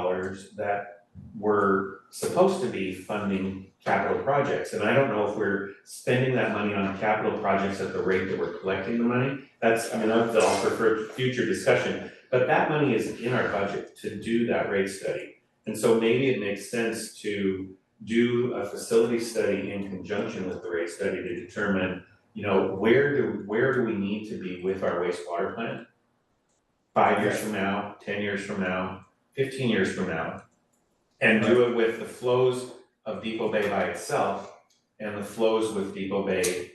dollars that were supposed to be funding capital projects, and I don't know if we're spending that money on capital projects at the rate that we're collecting the money. That's, I mean, that's all for for future discussion, but that money is in our budget to do that rate study. And so maybe it makes sense to do a facility study in conjunction with the rate study to determine, you know, where do, where do we need to be with our wastewater plant? Five years from now, ten years from now, fifteen years from now. And do it with the flows of Depot Bay by itself and the flows with Depot Bay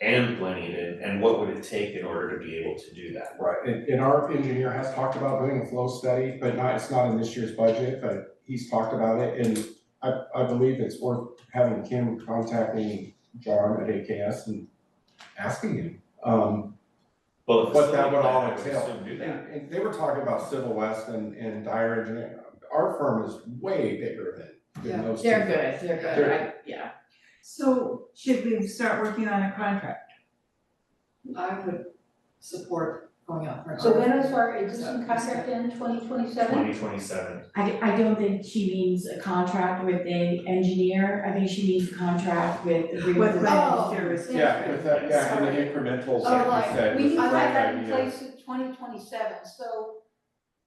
and Glenhaven, and what would it take in order to be able to do that? Right, and, and our engineer has talked about doing a flow study, but not, it's not in this year's budget, but he's talked about it, and I, I believe it's worth having Kim contacting John at AKS and asking him, um, Well, what that would all if it's entail. something do that. And, and they were talking about Civil West and, and Dyer Engineering, our firm is way bigger than, than Yeah, those two. They're good, they're good, I, They're- yeah, So should we start working on a contract? I would support going out for an So when RFP. is our existing contract in twenty twenty-seven? Twenty twenty-seven, I, I don't think she means a contract with a engineer, I think she means a contract with With agreement with. rental Oh. services? Yeah, with that, yeah, and the Sorry. incrementals, Oh, like you like, said, we was need the to have right that in idea. place in twenty twenty-seven, so,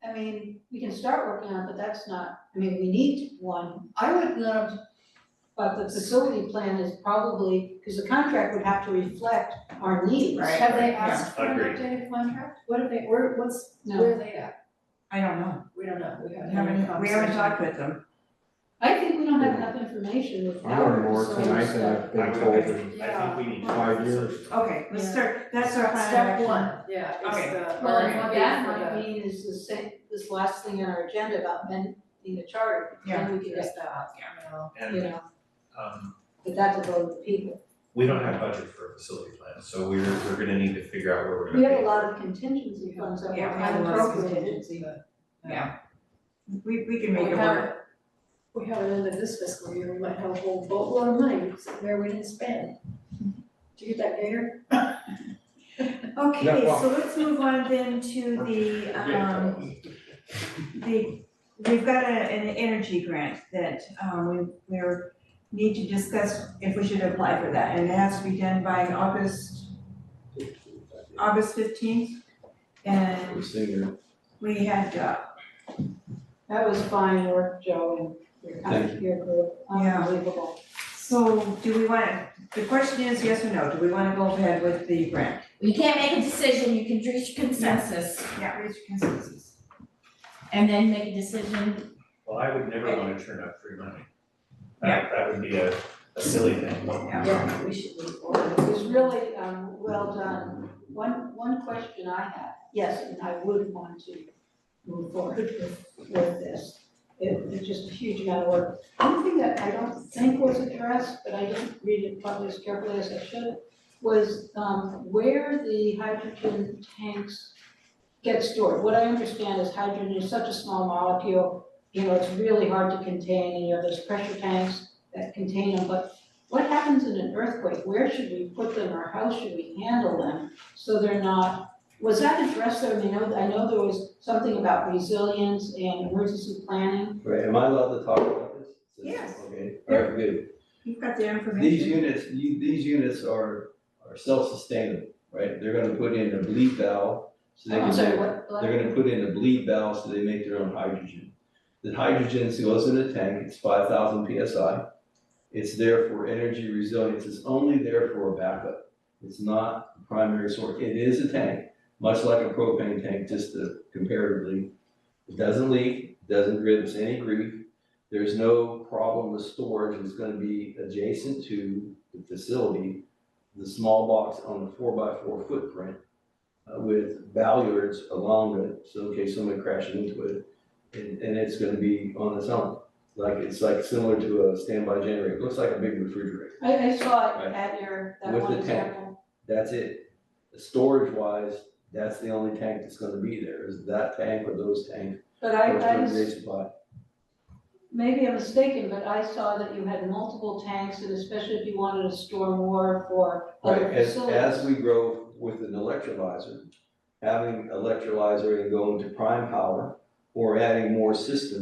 I mean, we can start working on, it, but that's not, I mean, we need one. I would love, but the facility plan is probably, because the contract would have to reflect our needs. Right, Have right, they yeah, asked for an agreed. updated contract? What have they, where, what's, No. where are they at? I don't know, We don't know, we we haven't had any haven't, we conversation. haven't talked with them. I think we don't have enough information with I learned our more facility tonight stuff. than I've I been would, told I in think, I think we need to. five years. Okay, let's Yeah. start, that's our plan. Step one, yeah, Okay. it's the Well, and what that RFP might mean is the same, this last thing on our agenda about amending the charter, then we for can the, just, just that, you know. you And know, um, but that's a vote of the people. we don't have budget for a facility plan, so we're, we're gonna need to figure out where we're We gonna have pay a lot for it. of contingency funds that Yeah, were we have a lot of unappropriated. contingency, but- Yeah. We, we can We make it have, work. it- we have it under this fiscal year, we might have a whole boatload of money sitting there we didn't spend. Do you get that, Gator? Okay, Yeah, well- so let's move on then to the, um, the, we've got a, an energy grant that, um, we, we're, need to discuss if we should apply for that, and it has to be done by August, August fifteenth. And we had, uh, That was fine work, Joe, and your con- your group, Yeah. unbelievable. so do we wanna, the question is yes or no, do we wanna go ahead with the grant? You can't make a decision, you can reach consensus Yeah, reach consensus. and then make a decision. Well, I would never Okay. wanna turn up free money. That, that would be a, a silly thing. Yeah, we should move forward. It was really, um, well done. One, one question I have, yes, and I would want to move forward with, with this. It, it's just a huge amount of work. One thing that I don't think was addressed, but I didn't read it probably as carefully as I should, was, um, where the hydrogen tanks get stored. What I understand is hydrogen is such a small molecule, you know, it's really hard to contain, and you know, there's pressure tanks that contain them, but what happens in an earthquake? Where should we put them or how should we handle them? So they're not, was that addressed there? I mean, I know, I know there was something about resilience and emergency planning. Right, am I allowed to talk about this? Yes. Okay, all right, good. You've got the These information. units, you, these units are, are self-sustaining, right? They're gonna put in a bleed valve, so they Oh, I'm can, sorry, do- what, what? they're gonna put in a bleed valve, so they make their own hydrogen. The hydrogen goes in the tank, it's five thousand PSI. It's there for energy resilience, it's only there for a backup. It's not the primary source, it is a tank, much like a propane tank, just to comparatively. It doesn't leak, doesn't give us any grief, there's no problem with storage, it's gonna be adjacent to the facility, the small box on the four by four footprint uh, with bollards along it, so in case somebody crashes into it, and, and it's gonna be on its own. Like, it's like similar to a standby generator, it looks like a big refrigerator, I, I saw it Right. at your, that With one the tank. example. that's it. Storage wise, that's the only tank that's gonna be there, is that tank or those tanks. But I, Those I, are was- great supply. maybe I'm mistaken, but I saw that you had multiple tanks and especially if you wanted to store more for Right, other as, facilities. as we grow with an electrolyzer, having electrolyzer and going to prime power or adding more systems.